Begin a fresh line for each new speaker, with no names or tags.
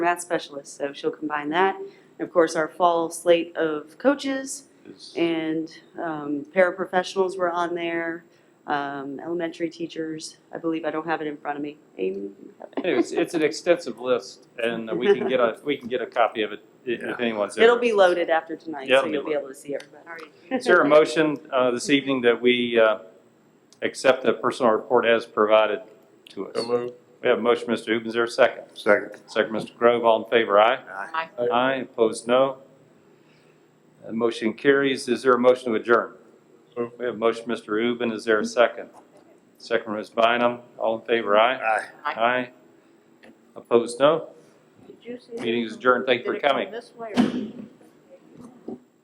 math specialist, so she'll combine that. And of course, our fall slate of coaches
It's-
and um, paraprofessionals were on there, um, elementary teachers, I believe, I don't have it in front of me. Amy? you have it?
Anyways, it's an extensive list, and we can get a, we can get a copy of it i- if anyone's interested.
It'll be loaded after tonight,
Yeah,
so
it'll be
you'll be
loaded.
able to see everybody.
Is there a motion uh, this evening that we uh, accept the personal report as provided to us?
So moved.
We have a motion, Mr. Uben, is there a second?
Second.
Second, Mr. Grove, all in favor, aye?
Aye.
Aye, opposed, no. Uh, Motion carries, is there a motion to adjourn?
So moved.
We have a motion, Mr. Uben, is there a second? Second, Ms. Bynum, all in favor, aye?
Aye.
Aye. Opposed, no.
Did you see?
Meeting is adjourned. Thank you for
Did it come
coming.
this way or-